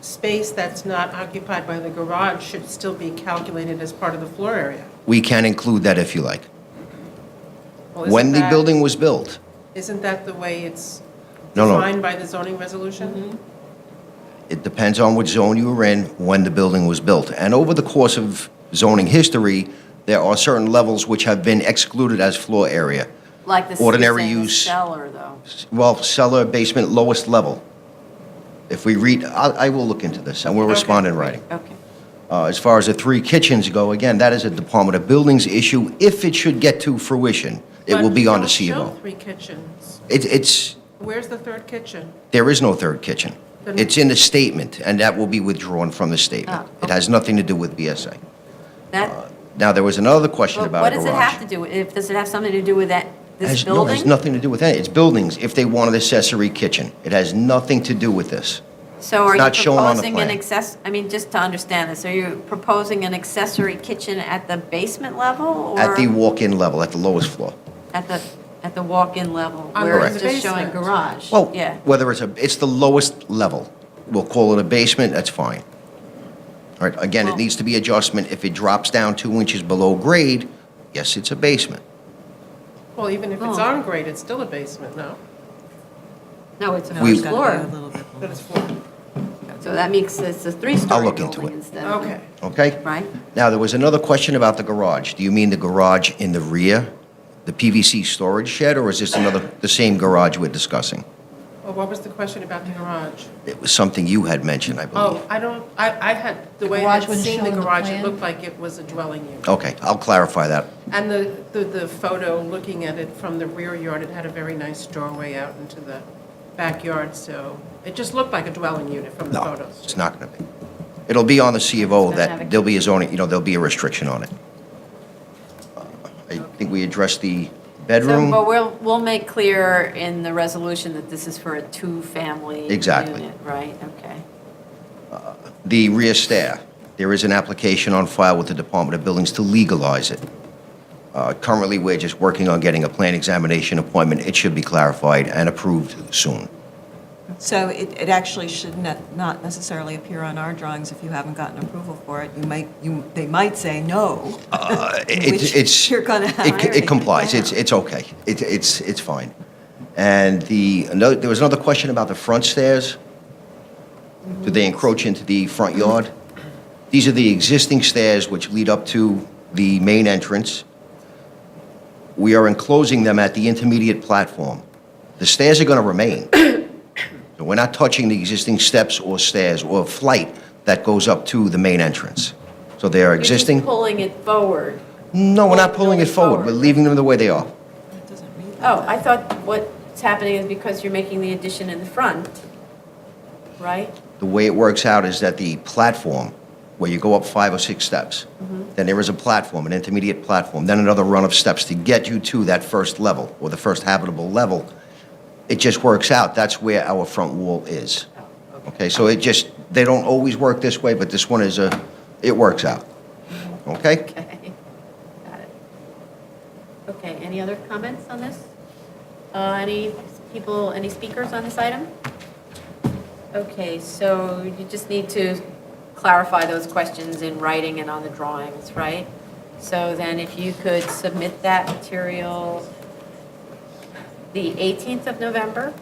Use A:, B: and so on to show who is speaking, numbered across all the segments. A: space that's not occupied by the garage should still be calculated as part of the floor area.
B: We can include that if you like.
A: Well, isn't
B: When the
A: that-
B: building was built,
A: Isn't that the way it's
B: No, no.
A: defined by the zoning
C: Mm-hmm.
A: resolution?
B: it depends on what zone you were in when the building was built. And over the course of zoning history, there are certain levels which have been excluded as floor area.
D: Like the
B: Ordinary
D: city saying
B: use.
D: cellar, though.
B: Well, cellar, basement, lowest level. If we read, I, I will look into this, and we'll respond in writing.
D: Okay.
B: Uh, As far as the three kitchens go, again, that is a Department of Buildings issue. If it should get to fruition, it will
A: But
B: be
A: you
B: on the
A: don't show
B: CFO.
A: three kitchens.
B: It- It's,
A: Where's the third kitchen?
B: there is no third kitchen.
A: Then-
B: It's in the statement, and that will be withdrawn from the
D: Ah,
B: statement. It
D: okay.
B: has nothing to do with BSA. Uh,
D: That,
B: Now, there was another question
D: well,
B: about
D: what
B: a
D: does
B: garage.
D: it have to do, with- if, does it have something to do with that, this
B: Has- No, it has
D: building?
B: nothing to do with that. It's buildings, if they want an accessory kitchen. It has nothing to do with this.
D: So
B: it's
D: are you
B: not shown on the
D: proposing an
B: plan.
D: access, I mean, just to understand this, are you proposing an accessory kitchen at the basement level? or
B: At the walk-in level, at the lowest floor.
D: At the, at the walk-in level,
A: On
D: where it's
A: the
D: just showing
A: basement.
D: garage?
B: Well,
D: Yeah.
B: whether it's a, it's the lowest level. We'll call it a basement, that's fine. All right, again, it
D: Well-
B: needs to be adjustment. If it drops down two inches below grade, yes, it's a basement.
A: Well, even if it's
D: Oh.
A: on grade, it's still a basement, no?
D: No, it's a
B: We-
D: first floor,
A: But it's floor.
D: so that makes it's a three-story
B: look into
D: building
B: it.
D: instead of.
A: Okay.
B: Okay?
D: Right?
B: Now, there was another question about the garage. Do you mean the garage in the rear, the PVC storage shed, or is this another, the same garage we're discussing?
A: Well, what was the question about the garage?
B: It was something you had mentioned, I
A: Oh,
B: believe.
A: I don't, I, I had, the
C: The
A: way I
C: garage
A: had
C: wouldn't
A: seen
C: show
A: the
C: on the
A: garage, it
C: plan?
A: looked like it was a dwelling unit.
D: Oh.
B: Okay, I'll clarify that.
A: And the, the, the photo, looking at it from the rear yard, it had a very nice doorway out into the backyard, so it just looked like a dwelling unit from the
B: No,
A: photos.
B: it's not going to be. It'll be on the C of O
D: It's gonna have a-
B: that there'll be a zoning, you know, there'll be a restriction on it. Uh, I think we addressed the
D: So, but
B: bedroom.
D: we'll, we'll make clear in the resolution that this is for a two-family
B: Exactly.
D: unit, Right, okay.
B: The rear stair, there is an application on file with the Department of Buildings to legalize it. Uh, Currently, we're just working on getting a plan examination appointment. It should be clarified and approved soon.
E: So it, it actually should not, not necessarily appear on our drawings if you haven't gotten approval for it. You might, you, they might say no.
B: Uh, it-
E: Which
B: it's-
E: you're gonna
B: it-
E: hire
B: It
E: it.
B: complies, it's, it's okay, It- it's, it's fine. And the, another- there was another question about the front stairs. Do they encroach into the front yard? These are the existing stairs which lead up to the main entrance. We are enclosing them at the intermediate platform. The stairs are going to remain. So We're not touching the existing steps or stairs or flight that goes up to the main entrance. So they are
D: You're just
B: existing.
D: pulling it forward.
B: No, we're not pulling it
D: Going
B: forward. We're
D: forward.
B: leaving them the way they are.
E: It doesn't read that.
D: Oh, I thought what's happening is because you're making the addition in the front, right?
B: The way it works out is that the platform, where you go up five or six steps, then there is a platform, an intermediate platform, then another run of steps to get you to that first level or the first habitable level. It just works out. That's where our front wall is. Okay, so it just, they don't always work this way, but this one is a, it works out. Okay?
D: Okay, got it. Okay, any other comments on this? Uh, Any people, any speakers on this item? Okay, so you just need to clarify those questions in writing and on the drawings, right? So then if you could submit that material the 18th of November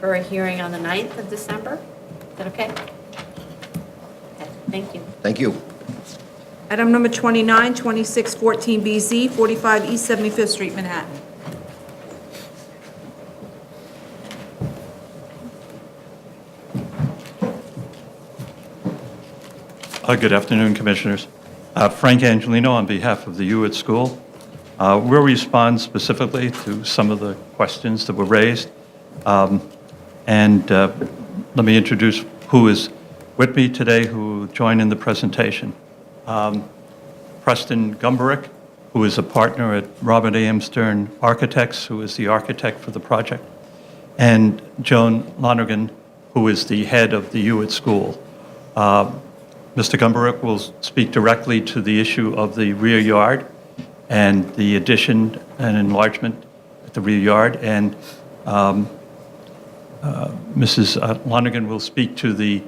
D: for a hearing on the 9th of December, is that okay? Okay, Thank you.
B: Thank you.
C: Item number 29, 2614BZ, 45 East 75th Street, Manhattan.
F: Uh, Good afternoon, Commissioners. Uh, Frank Angelino on behalf of the U at School. Uh, We'll respond specifically to some of the questions that were raised. Um, And uh, let me introduce who is with me today who joined in the presentation. Um, Preston Gumbarick, who is a partner at Robert A.M. Stern Architects, who is the architect for the project, and Joan Lonergan, who is the head of the U at School. Uh, Mr. Gumbarick will speak directly to the issue of the rear yard and the addition and enlargement at the rear yard, um, and Mrs. Lonergan will speak to the